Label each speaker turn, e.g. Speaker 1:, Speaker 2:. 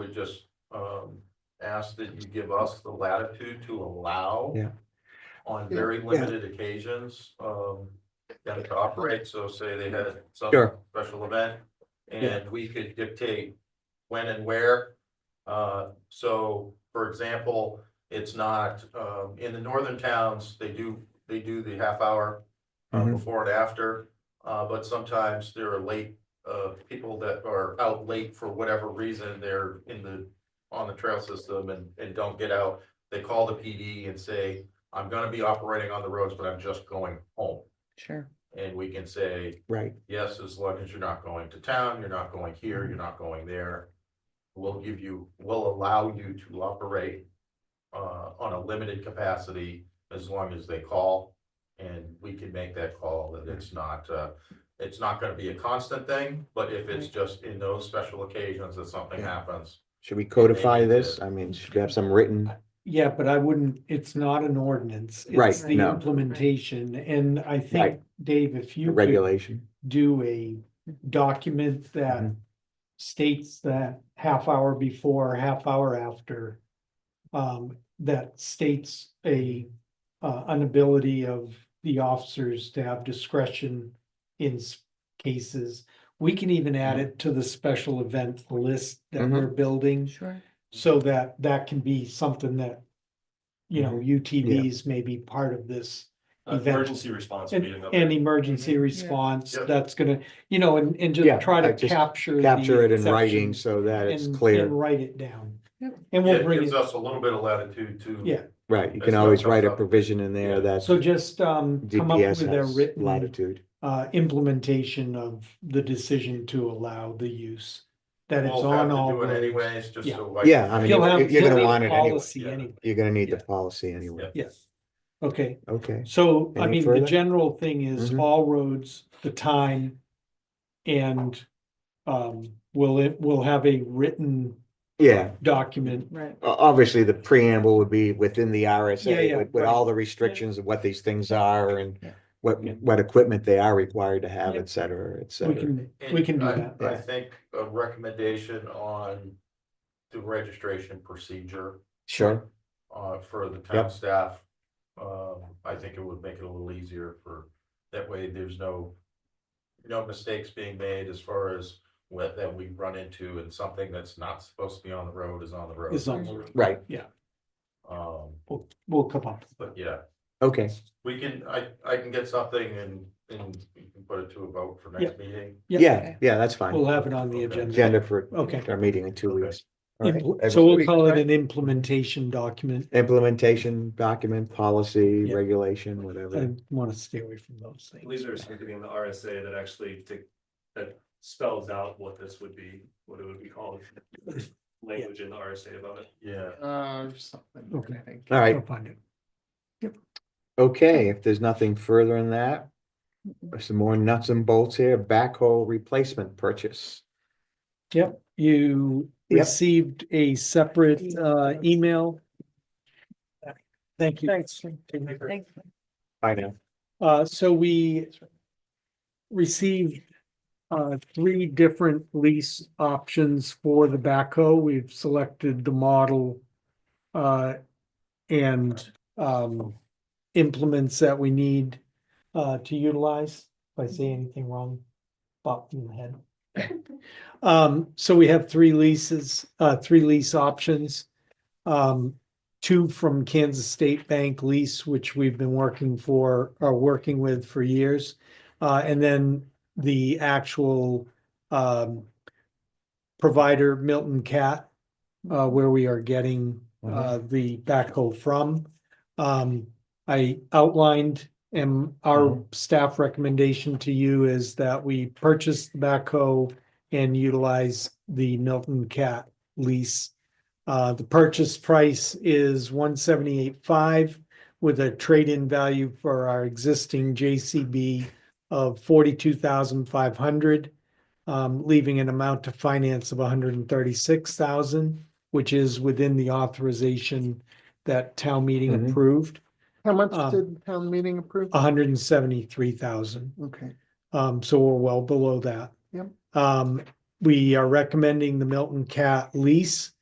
Speaker 1: would just um ask that you give us the latitude to allow.
Speaker 2: Yeah.
Speaker 1: On very
Speaker 2: Yeah.
Speaker 1: limited occasions, um, them to operate, so say they had some
Speaker 2: Sure.
Speaker 1: special event. And we could dictate when and where. Uh, so, for example, it's not, um, in the northern towns, they do, they do the half hour. uh,
Speaker 2: Mhm.
Speaker 1: Before and after, uh, but sometimes there are late, uh, people that are out late for whatever reason, they're in the. On the trail system and, and don't get out, they call the PD and say, I'm gonna be operating on the roads, but I'm just going home.
Speaker 3: Sure.
Speaker 1: And we can say,
Speaker 2: Right,
Speaker 1: Yes, as long as you're not going to town, you're not going here, you're not going there. We'll give you, we'll allow you to operate uh, on a limited capacity as long as they call. And we can make that call that it's not, uh, it's not gonna be a constant thing, but if it's just in those special occasions that something
Speaker 2: Yeah.
Speaker 1: happens.
Speaker 2: should we codify
Speaker 1: Maybe
Speaker 2: this?
Speaker 1: the-
Speaker 2: I mean, should we have some written?
Speaker 4: Yeah, but I wouldn't, it's not an ordinance.
Speaker 2: Right,
Speaker 4: It's the
Speaker 2: no.
Speaker 4: implementation, and I
Speaker 2: Right.
Speaker 4: think, Dave, if you could
Speaker 2: regulation.
Speaker 4: do a document that
Speaker 2: Mhm.
Speaker 4: states that half hour before, half hour after. Um, that states a, uh, an ability of the officers to have discretion in s- cases. We can even add
Speaker 2: Mm-hmm.
Speaker 4: it to the special event list that
Speaker 2: Mhm.
Speaker 4: we're building.
Speaker 3: Sure.
Speaker 4: So that, that can be something that, you
Speaker 2: Mm-hmm.
Speaker 4: know, UTVs may be part of this. event.
Speaker 5: Uh, Emergency response would
Speaker 4: And,
Speaker 5: be another.
Speaker 4: and emergency response,
Speaker 1: Yep.
Speaker 4: that's gonna, you know, and, and
Speaker 2: Mm-hmm. Yeah,
Speaker 4: just try
Speaker 2: I
Speaker 4: to
Speaker 2: just
Speaker 4: capture. the
Speaker 2: Capture it in writing
Speaker 4: exceptions
Speaker 2: so that it's
Speaker 4: and-
Speaker 2: clear,
Speaker 4: And write it down.
Speaker 3: Yep.
Speaker 4: And
Speaker 1: Yeah,
Speaker 4: we'll
Speaker 1: It
Speaker 4: bring
Speaker 1: gives
Speaker 4: it,
Speaker 1: us a little bit of latitude to.
Speaker 4: Yeah.
Speaker 2: right? You
Speaker 1: That's
Speaker 2: can
Speaker 1: not
Speaker 2: always
Speaker 1: tough
Speaker 2: write a
Speaker 1: up.
Speaker 2: provision in
Speaker 1: Yeah.
Speaker 2: there that
Speaker 4: so just, um, come up
Speaker 2: DPS
Speaker 4: with a
Speaker 2: has
Speaker 4: written,
Speaker 2: latitude.
Speaker 4: uh, implementation of the decision to allow the use. That it's
Speaker 1: We'll have
Speaker 4: on
Speaker 1: to
Speaker 4: all
Speaker 1: do it
Speaker 4: roads.
Speaker 1: anyways, just
Speaker 4: Yeah.
Speaker 1: so. like-
Speaker 2: Yeah, I mean,
Speaker 4: You'll
Speaker 2: you-
Speaker 4: have,
Speaker 2: you're
Speaker 4: you'll
Speaker 2: gonna
Speaker 4: need
Speaker 2: want
Speaker 4: a
Speaker 2: it anyway.
Speaker 4: policy
Speaker 1: Yeah.
Speaker 4: anyway,
Speaker 2: You're gonna need the
Speaker 4: Yeah.
Speaker 2: policy anyway.
Speaker 4: yes, okay.
Speaker 2: Okay,
Speaker 4: So, I
Speaker 2: Any
Speaker 4: mean, the
Speaker 2: further?
Speaker 4: general thing is
Speaker 2: Mhm.
Speaker 4: all roads, the time. And, um, will it, will have a written
Speaker 2: yeah.
Speaker 4: document.
Speaker 3: Right.
Speaker 2: O- Obviously, the preamble would be within the
Speaker 4: Yeah,
Speaker 2: RSA
Speaker 4: yeah,
Speaker 2: with, with
Speaker 4: right.
Speaker 2: all the restrictions of what these things are and
Speaker 3: Yeah.
Speaker 2: what,
Speaker 4: Yeah.
Speaker 2: what equipment they are required to have,
Speaker 4: Yeah.
Speaker 2: et cetera, et
Speaker 4: We
Speaker 2: cetera.
Speaker 4: can, we can do
Speaker 1: And I-
Speaker 4: that.
Speaker 1: I
Speaker 2: Yeah.
Speaker 1: think a recommendation on the registration procedure
Speaker 2: Sure,
Speaker 1: uh, for the town
Speaker 2: Yep.
Speaker 1: staff. Um, I think it would make it a little easier for, that way there's no, no mistakes being made as far as what, that we run into and something that's not supposed to be on the road is on the road.
Speaker 4: Is on the road.
Speaker 2: right,
Speaker 1: Um,
Speaker 4: We'll, we'll come up.
Speaker 1: but yeah,
Speaker 2: okay,
Speaker 1: we can, I, I can get something and, and we can put it to a vote for next
Speaker 4: Yep.
Speaker 1: meeting.
Speaker 4: Yeah,
Speaker 2: yeah, yeah, that's fine.
Speaker 4: We'll have it on the
Speaker 1: Okay.
Speaker 4: agenda.
Speaker 2: Agenda for
Speaker 4: Okay.
Speaker 2: our meeting in two
Speaker 1: Okay.
Speaker 2: weeks. All right.
Speaker 4: Impl-
Speaker 2: Every
Speaker 4: So we'll
Speaker 2: week.
Speaker 4: call it an implementation document.
Speaker 2: Implementation, document, policy,
Speaker 4: Yeah.
Speaker 2: regulation, whatever.
Speaker 4: I want to stay away from those
Speaker 5: I believe
Speaker 4: things.
Speaker 5: there's something in the RSA that actually dic- that spells out what this would be, what it would be called. Language in the RSA about it.
Speaker 1: Yeah.
Speaker 3: Uh, something.
Speaker 4: Okay.
Speaker 3: I think.
Speaker 2: All right,
Speaker 4: I'll find it.
Speaker 2: okay, if there's nothing further in that, there's some more nuts and bolts here, backhoe replacement purchase.
Speaker 4: Yep, you
Speaker 2: Yep.
Speaker 4: received a separate uh email. Thank you. Thanks.
Speaker 3: Thank you.
Speaker 2: I know.
Speaker 4: Uh, so we received uh three different lease options for the backhoe. We've selected the model uh and um implements that we need uh to utilize. If I say anything wrong, pop in the head. Um, so we have three leases, uh, three lease options. Um, two from Kansas State Bank lease, which we've been working for, are working with for years. Uh, and then the actual, um, provider Milton Cat, uh, where we are getting, uh, the backhoe from. Um, I outlined and our staff recommendation to you is that we purchase the backhoe and utilize the Milton Cat lease. Uh, the purchase price is one seventy-eight five with a trade-in value for our existing JCB of forty-two thousand five hundred, um, leaving an amount to finance of one hundred and thirty-six thousand, which is within the authorization that town meeting
Speaker 2: Mhm.
Speaker 4: approved,
Speaker 3: How
Speaker 4: Uh,
Speaker 3: much did town meeting approve?
Speaker 4: hundred and seventy-three thousand.
Speaker 3: Okay.
Speaker 4: Um, so we're well below that.
Speaker 3: Yep.
Speaker 4: Um, we are recommending the Milton Cat lease.